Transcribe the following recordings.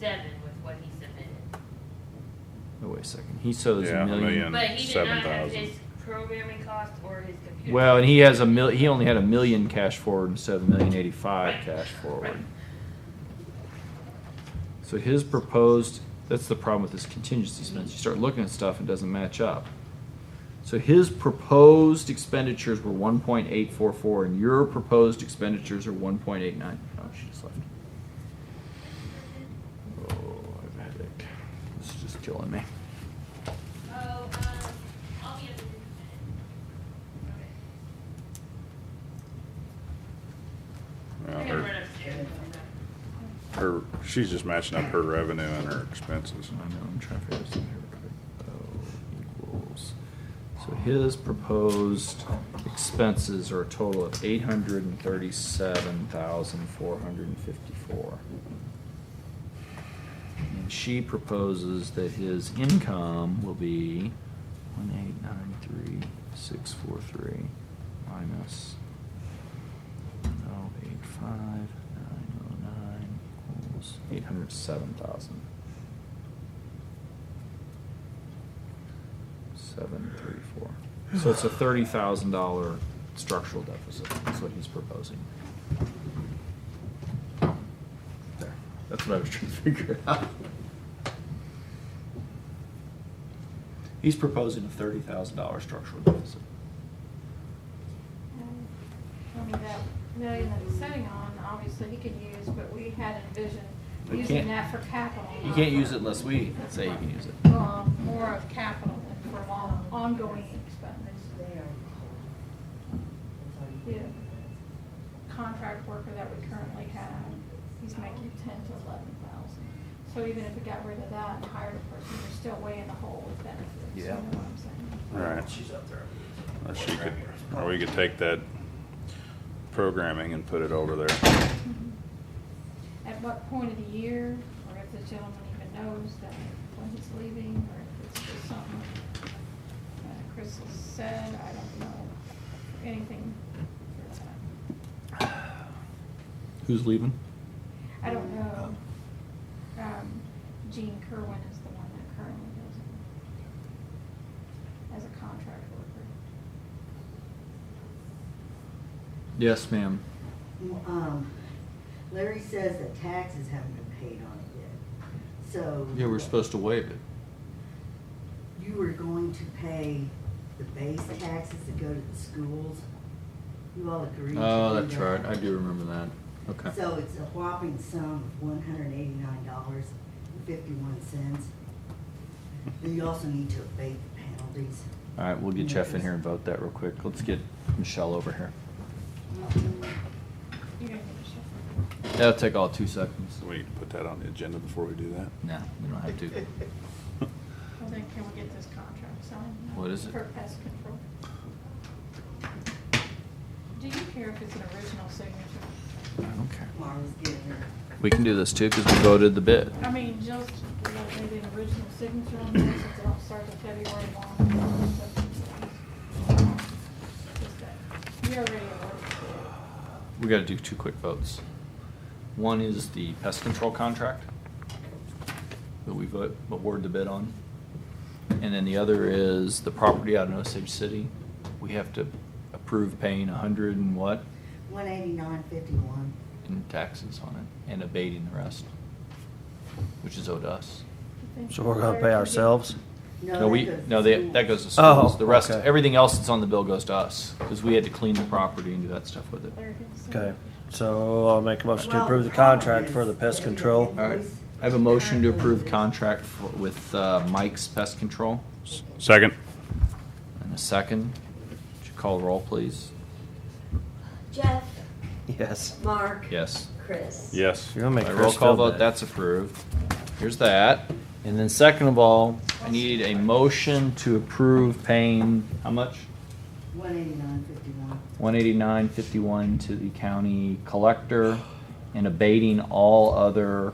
seven with what he submitted. Oh, wait a second. He shows Yeah, a a million. million. And But he did not have 7,000. his programming cost or his computer. Well, and he has a mil. million. He only had a million cash forward instead of a million eighty-five cash forward. So his proposed. That's the problem with this contingency spends. You start looking at stuff and it doesn't match up. So his proposed expenditures were one point eight four four, and your proposed expenditures are one point eight nine. Oh, she just left. Oh, I have a headache. This is just killing me. Oh, um, I'll be in Well, I gotta run her, upstairs. her, she's just matching up her revenue and her expenses. I know, I'm trying to figure this out here. real quick. Oh, equals. So his proposed expenses are a total of eight hundred and thirty-seven thousand, four hundred and fifty-four. And she proposes that his income will be one eight nine three, six four three, minus oh eight five, nine oh nine, equals eight hundred seven thousand. Seven thirty-four. So it's a thirty thousand dollar structural deficit, is what he's proposing. There, that's what I was trying to figure out. He's proposing a thirty thousand dollar structural deficit. I mean, that million that he's sitting on, obviously he can use, but we had envisioned We using can't- that for capital. You not can't for- use it unless we say you can use it. Well, more of capital than for on- ongoing expenses. The contract worker that we currently have, he's making ten to eleven thousand. So even if we got rid of that and hired a person, we're still way in the hole with benefits. you Yeah. know what I'm saying? Right. She's up there. Or she could, or we could take that programming and put it over there. Mm-hmm. At what point of the year, or if the gentleman even knows that when he's leaving, or if it's just something that Chris has said, I don't know, anything for that. Who's leaving? I don't know. Um, Gene Kerwin is the one that currently does it as a contract worker. Yes, ma'am. Um, Larry says that taxes haven't been paid on it yet, so. Yeah, we're supposed to waive it. You were going to pay the base taxes that go to the schools? You all agreed to do Oh, that? that's right. I do remember that. Okay. So it's a whopping sum of one hundred and eighty-nine dollars and fifty-one cents. Then you also need to abate the penalties. All right, we'll get Jeff in here and vote that real quick. Let's get Michelle over here. You're gonna get a shift. That'll take all two seconds. So we need to put that on the agenda before we do that. No, we don't have to. Well, then can we get this contract signed? What is it? For pest control. Do you care if it's an original signature? Okay. Mara's getting her. We can do this too, because we voted the bid. I mean, just, you know, maybe an original signature on this, it don't start to February one. Just that. We already awarded We gotta do two quick votes. One is the pest control contract that we vote, award the bid on. And then the other is the property out in Osage City. We have to approve paying a hundred and what One eighty-nine fifty-one. in taxes on it and abating the rest, which is owed us. it. So we're gonna pay ourselves? No, we, no, they that, that goes to Oh, schools. The rest, okay. everything else that's on the bill goes to us, because we had to clean the property and do that stuff with it. Okay, so I'll make a motion to approve the contract for the pest control. All right, I have a motion to approve contract for- with uh, Mike's Pest Control, Second. and a second. Would you call roll, please? Jeff, Yes. Mark, Yes. Chris. Yes. You're gonna make By Chris roll call feel vote, bad. that's approved. Here's that. And then second of all, I need a motion to approve paying, how much? One eighty-nine fifty-one. One eighty-nine fifty-one to the county collector and abating all other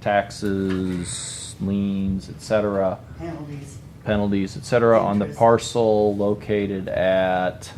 taxes, liens, et cetera, penalties. penalties, et cetera, on the Interest. parcel located at